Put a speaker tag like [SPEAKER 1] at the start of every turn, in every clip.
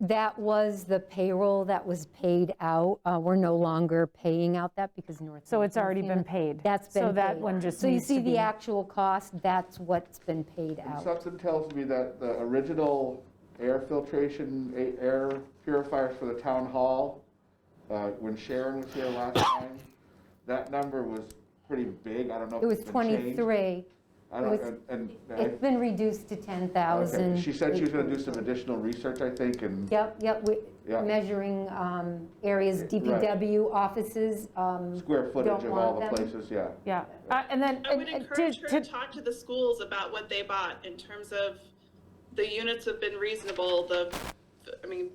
[SPEAKER 1] That was the payroll that was paid out. Uh, We're no longer paying out that because North.
[SPEAKER 2] So it's already been paid.
[SPEAKER 1] That's been
[SPEAKER 2] So that
[SPEAKER 1] paid.
[SPEAKER 2] one just
[SPEAKER 1] So you
[SPEAKER 2] needs to
[SPEAKER 1] see the
[SPEAKER 2] be-
[SPEAKER 1] actual cost, that's what's been paid
[SPEAKER 3] And
[SPEAKER 1] out.
[SPEAKER 3] Something tells me that the original air filtration, a- air purifiers for the town hall, uh, when Sharon was here last time, that number was pretty big. I don't know if
[SPEAKER 1] It was
[SPEAKER 3] it's been changed.
[SPEAKER 1] 23.
[SPEAKER 3] I
[SPEAKER 1] it
[SPEAKER 3] don't,
[SPEAKER 1] was-
[SPEAKER 3] and- and. I-
[SPEAKER 1] It's been reduced to
[SPEAKER 3] okay.
[SPEAKER 1] 10,000.
[SPEAKER 3] She said she was going to do some additional research, I think, and,
[SPEAKER 1] Yep, yep, we-
[SPEAKER 3] Yeah.
[SPEAKER 1] measuring um, areas,
[SPEAKER 3] Right.
[SPEAKER 1] DPW offices. um,
[SPEAKER 3] square footage
[SPEAKER 1] Don't
[SPEAKER 3] of all
[SPEAKER 1] want
[SPEAKER 3] the
[SPEAKER 1] them.
[SPEAKER 3] places, yeah.
[SPEAKER 2] Yeah, Uh, and then,
[SPEAKER 4] I would
[SPEAKER 2] and- and
[SPEAKER 4] encourage
[SPEAKER 2] to-
[SPEAKER 4] her to
[SPEAKER 2] to-
[SPEAKER 4] talk to the schools about what they bought in terms of the units have been reasonable, the, I mean,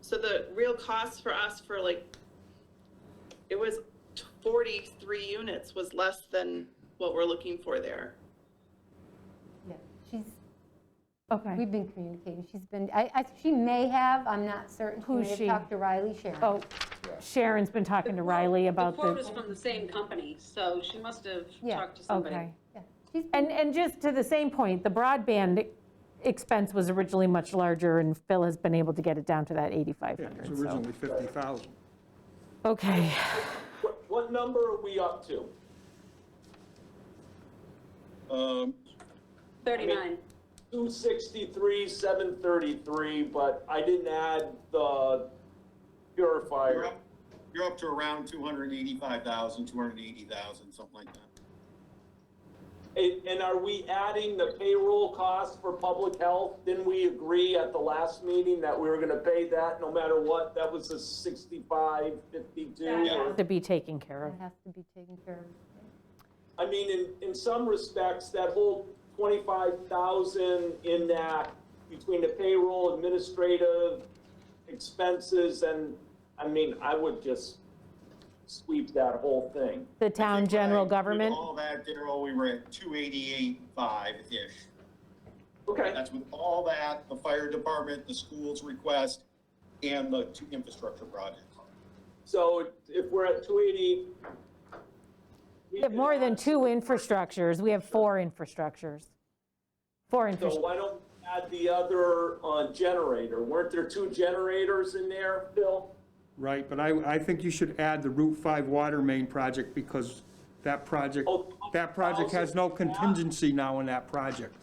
[SPEAKER 4] so the real cost for us for like, it was 43 units was less than what we're looking for there.
[SPEAKER 1] yeah, She's,
[SPEAKER 2] okay.
[SPEAKER 1] we've been communicating, she's been, I, I- she may have, I'm not certain.
[SPEAKER 2] Who's
[SPEAKER 1] may have
[SPEAKER 2] she?
[SPEAKER 1] Talked to Riley Sharon.
[SPEAKER 2] Oh, Sharon's been talking to Riley about
[SPEAKER 5] The quote is
[SPEAKER 2] the,
[SPEAKER 5] from the same company, so she must have
[SPEAKER 1] Yeah,
[SPEAKER 5] talked to somebody.
[SPEAKER 2] okay.
[SPEAKER 1] Yeah, she's been-
[SPEAKER 2] And, and just to the same point, the broadband expense was originally much larger, and Phil has been able to get it down to that
[SPEAKER 6] It's
[SPEAKER 2] 8,500, so.
[SPEAKER 6] originally 50,000.
[SPEAKER 2] Okay,
[SPEAKER 7] What, what number are we up to?
[SPEAKER 8] Um,
[SPEAKER 5] 39.
[SPEAKER 7] Two sixty-three, seven thirty-three, but I didn't add the
[SPEAKER 8] You're
[SPEAKER 7] purifier.
[SPEAKER 8] up, you're up to around 285,000, 280,000, something like that.
[SPEAKER 7] And, and are we adding the payroll cost for public health? Didn't we agree at the last meeting that we were gonna pay that no matter what? That was a sixty-five, fifty-two.
[SPEAKER 5] Yeah.
[SPEAKER 2] to be taken care of.
[SPEAKER 1] That has to be taken care of.
[SPEAKER 7] I mean, in, in some respects, that whole twenty-five thousand in that, between the payroll, administrative expenses, and, I mean, I would just sweep that whole thing.
[SPEAKER 2] The town general
[SPEAKER 8] Right, with
[SPEAKER 2] government,
[SPEAKER 8] all that, Daryl, we were at 288.5-ish.
[SPEAKER 7] Okay,
[SPEAKER 8] That's with all that, the fire department, the school's request, and the two infrastructure projects.
[SPEAKER 7] so if we're at two eighty.
[SPEAKER 2] we have more than two infrastructures, we have four infrastructures. Four
[SPEAKER 7] So
[SPEAKER 2] infrastructures.
[SPEAKER 7] why don't we add the other, uh, generator? Weren't there two generators in there, Bill?
[SPEAKER 6] Right, but I, I think you should add the Route 5 water main project because that project,
[SPEAKER 7] Oh,
[SPEAKER 6] that project has no contingency now in that project.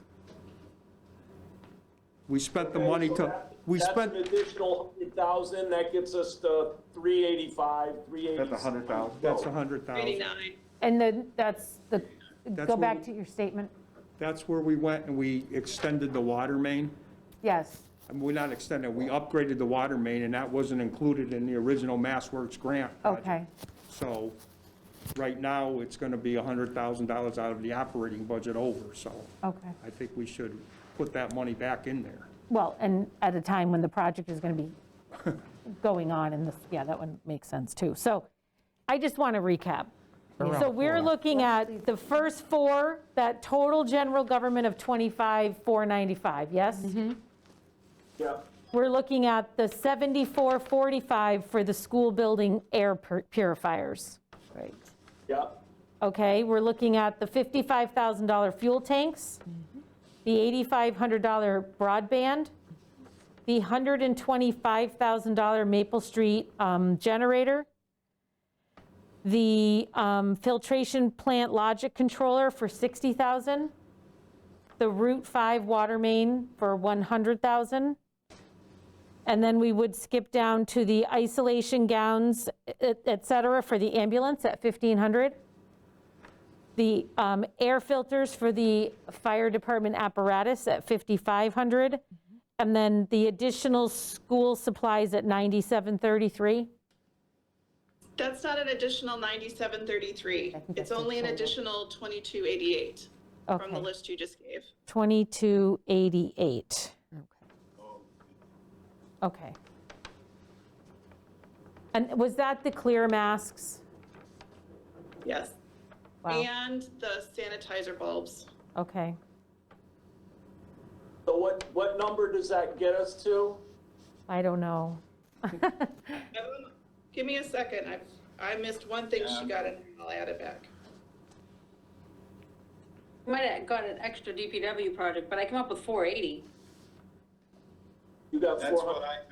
[SPEAKER 6] We spent the money
[SPEAKER 7] Okay, so
[SPEAKER 6] to,
[SPEAKER 7] that-
[SPEAKER 6] we
[SPEAKER 7] That's
[SPEAKER 6] spent,
[SPEAKER 7] an additional 100,000, that gets us to 385, 380.
[SPEAKER 3] That's 100,000.
[SPEAKER 6] that's
[SPEAKER 7] Oh,
[SPEAKER 6] 100,000.
[SPEAKER 4] 39.
[SPEAKER 2] And then, that's the,
[SPEAKER 6] That's
[SPEAKER 2] go
[SPEAKER 6] what
[SPEAKER 2] back
[SPEAKER 6] we-
[SPEAKER 2] to your statement.
[SPEAKER 6] That's where we went and we extended the water main.
[SPEAKER 2] Yes,
[SPEAKER 6] I mean, we're not extending, we upgraded the water main and that wasn't included in the original MassWorks grant. project.
[SPEAKER 2] okay,
[SPEAKER 6] So right now, it's going to be $100,000 out of the operating budget over, so
[SPEAKER 2] okay.
[SPEAKER 6] I think we should put that money back in there.
[SPEAKER 2] Well, and at a time when the project is going to be going on in this, yeah, that one makes sense too. So I just want to recap. So we're looking at the first four, that total general government of 25,495, yes?
[SPEAKER 7] Yeah.
[SPEAKER 2] We're looking at the 7445 for the school building air pur- purifiers. Right.
[SPEAKER 7] Yep.
[SPEAKER 2] Okay, we're looking at the $55,000 fuel tanks, the $8,500 broadband, the $125,000 Maple Street um, generator, the um, filtration plant logic controller for $60,000, the Route 5 water main for $100,000, and then we would skip down to the isolation gowns, et et cetera, for the ambulance at 1,500 the um, air filters for the fire department apparatus at 5,500, and then the additional school supplies at 9,733?
[SPEAKER 4] That's not an additional 9733. It's only an additional 2288 from the
[SPEAKER 2] Okay.
[SPEAKER 4] list you just gave.
[SPEAKER 2] 2288. Okay. And was that the clear masks?
[SPEAKER 4] Yes.
[SPEAKER 2] Wow,
[SPEAKER 4] And the sanitizer bulbs.
[SPEAKER 2] okay.
[SPEAKER 7] So what, what number does that get us to?
[SPEAKER 2] I don't know.
[SPEAKER 4] Um, Give me a second. I, I missed one thing she got in. I'll add it back.
[SPEAKER 5] I Might have got an extra DPW project, but I came up with 480.
[SPEAKER 7] You got
[SPEAKER 8] That's
[SPEAKER 7] 400.
[SPEAKER 8] what I,